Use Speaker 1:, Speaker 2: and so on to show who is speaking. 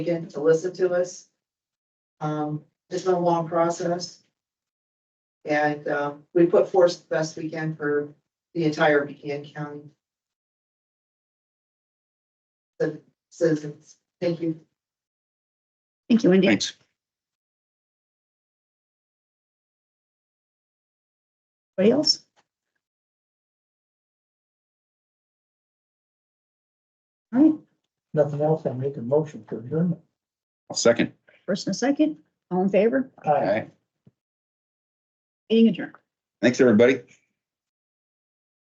Speaker 1: meeting to listen to us. Um, it's been a long process. And, um, we put forth the best we can for the entire Buchanan County. The citizens, thank you.
Speaker 2: Thank you, Wendy.
Speaker 3: Thanks.
Speaker 2: Anybody else? All right,
Speaker 4: Nothing else, I make a motion to adjourn.
Speaker 3: I'll second.
Speaker 2: first and a second, all in favor,
Speaker 3: All right.
Speaker 2: meeting adjourned.
Speaker 3: Thanks, everybody.